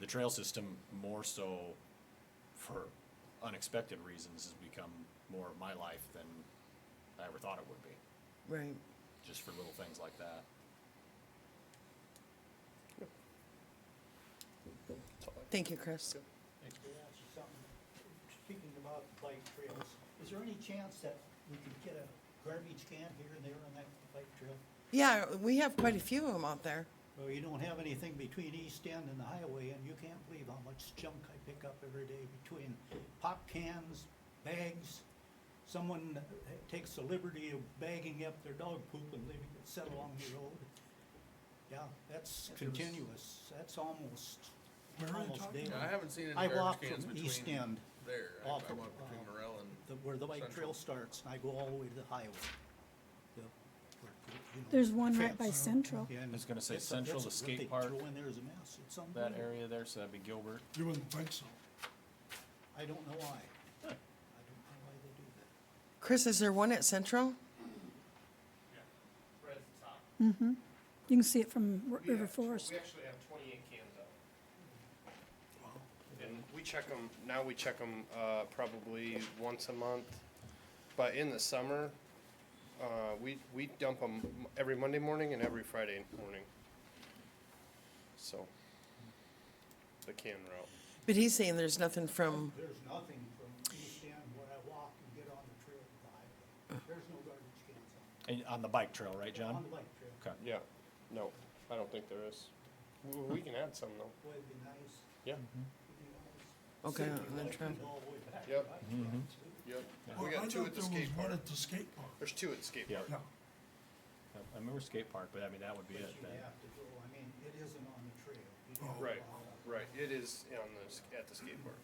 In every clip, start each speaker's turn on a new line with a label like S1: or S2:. S1: the trail system more so for unexpected reasons has become more of my life than I ever thought it would be,
S2: Right.
S1: just for little things like that.
S2: Thank you, Chris.
S3: They asked you something, speaking about bike trails, is there any chance that we could get a garbage can here and there on that bike trail?
S2: Yeah, we have quite a few of them out there.
S3: Well, you don't have anything between East End and the highway, and you can't believe how much junk I pick up every day between pop cans, bags. Someone takes the liberty of bagging up their dog poop and leaving it set along the road. Yeah, that's continuous, that's almost, almost daily.
S4: I haven't seen any
S3: I
S4: garbage
S3: walk
S4: cans
S3: from East
S4: between
S3: End
S4: there. I I walk
S3: off of,
S4: between
S3: uh,
S4: Morel and.
S3: the, where the bike
S4: Central.
S3: trail starts, and I go all the way to the highway. The- where- you know,
S5: There's one right by
S3: fence.
S5: Central.
S3: Yeah, and
S1: was gonna say
S3: it's a-
S1: Central,
S3: it's
S1: the
S3: a- what they
S1: skate park,
S3: Throw in there is a mess, it's
S1: That
S3: unbelievable.
S1: area there, so that'd be Gilbert.
S6: You wouldn't think so.
S3: I don't know why. I don't know why they do that.
S2: Chris, is there one at Central?
S5: You can see it from Ri- River Forest.
S7: We actually have twenty-eight cans out. And we check them, now we check them, uh, probably once a month, but in the summer, uh, we, we dump them every Monday morning and every Friday morning. So, the can route.
S2: But he's saying there's nothing from,
S3: There's nothing from East End where I walk and get on the trail to the highway. There's no garbage cans on-
S1: And on the bike trail, right,
S3: on
S1: John?
S3: the bike
S1: Okay.
S3: trail.
S7: Yeah, no, I don't think there is. We, we can add some though,
S3: Boy, it'd be nice,
S7: yeah,
S3: it'd be nice.
S2: okay,
S3: Safety
S2: on the
S3: lights
S2: trail.
S3: go all the way back to the
S7: Yep.
S3: bike trail, too.
S7: yep.
S6: Well,
S7: We
S6: I
S7: got two
S6: thought
S7: at the
S6: there was
S7: skate
S6: one
S7: park.
S6: at the skate park.
S7: There's two at skate
S1: Yeah.
S7: park.
S6: Yeah,
S1: I remember skate park, but I mean, that would be
S3: But
S1: it
S3: you
S1: then.
S3: have to go, I mean, it isn't on the trail. You don't
S6: Oh.
S7: Right,
S3: allow that.
S7: right, it is on the, sk- at the skate park.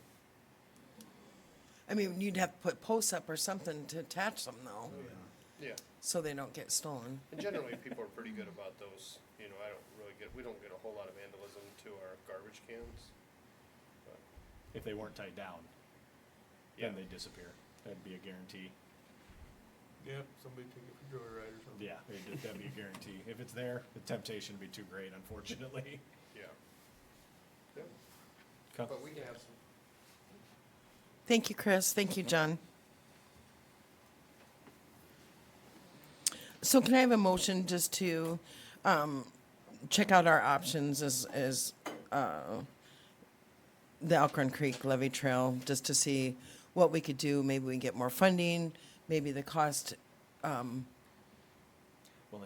S2: I mean, you'd have to put posts up or something to attach them though,
S7: Yeah,
S2: so they don't get stolen.
S7: and generally people are pretty good about those, you know, I don't really get, we don't get a whole lot of vandalism to our garbage cans. but,
S1: If they weren't tied down,
S7: Yeah,
S1: then they disappear. That'd be a guarantee.
S4: Yep, somebody took it for joyride or something.
S1: Yeah, it'd- that'd be a guarantee. If it's there, the temptation would be too great, unfortunately.
S7: yeah. Yep,
S1: Okay.
S7: But we can have some.
S2: Thank you, Chris. Thank you, John. So can I have a motion just to um, check out our options as, as uh, the Alcorn Creek Levy Trail, just to see what we could do? Maybe we can get more funding, maybe the cost,
S1: Well, then,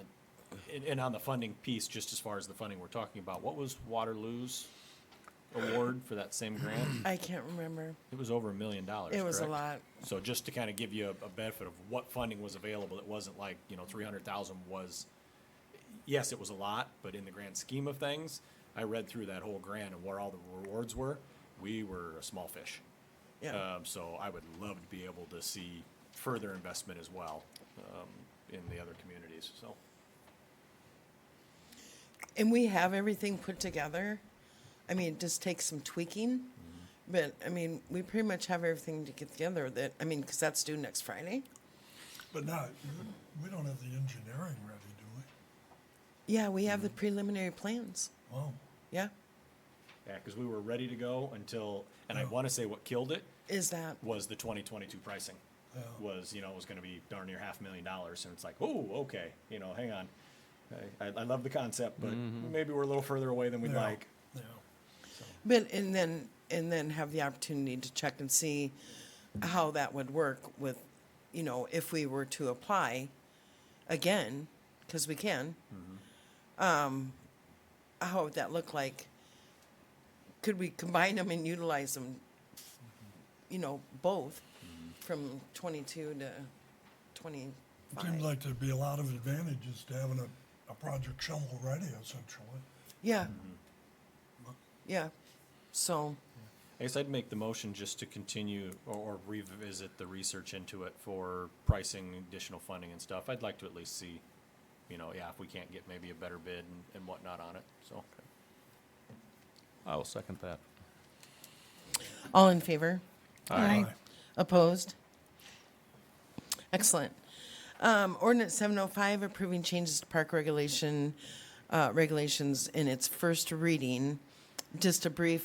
S1: and, and on the funding piece, just as far as the funding we're talking about, what was Waterloo's award for that same grant?
S2: I can't remember.
S1: It was over a million dollars,
S2: It was a
S1: correct?
S2: lot.
S1: So just to kind of give you a, a benefit of what funding was available, it wasn't like, you know, three hundred thousand was, yes, it was a lot, but in the grand scheme of things, I read through that whole grant and where all the rewards were, we were a small fish.
S2: Yeah.
S1: Um, so I would love to be able to see further investment as well, um, in the other communities, so.
S2: And we have everything put together. I mean, it just takes some tweaking. But I mean, we pretty much have everything to get together that, I mean, because that's due next Friday.
S6: but not, we don't have the engineering ready, do we?
S2: Yeah, we have the preliminary plans.
S6: Well,
S2: Yeah,
S1: Yeah, because we were ready to go until, and I want to say what killed it
S2: is that,
S1: was the 2022 pricing.
S6: Yeah.
S1: Was you know it was going to be darn near half a million dollars, and it's like, oh, okay, you know, hang on. I, I, I love the concept, but maybe we're a little further away than we'd
S6: yeah,
S1: like.
S6: Yeah,
S2: but, and then, and then have the opportunity to check and see how that would work with, you know, if we were to apply again, because we can. Um, how would that look like? Could we combine them and utilize them, you know, both from twenty-two to
S6: it seems
S2: twenty-five?
S6: like there'd be a lot of advantages to having a, a project shovel ready essentially.
S2: Yeah. Yeah, so.
S1: I guess I'd make the motion just to continue or, or revisit the research into it for pricing, additional funding, and stuff. I'd like to at least see, you know, yeah, if we can't get maybe a better bid and, and whatnot on it. So
S8: I will second that.
S2: All in favor?
S5: Aye.
S2: Opposed? Excellent. Um, ordinance seven oh five approving changes to park regulation, uh, regulations in its first reading. Just a brief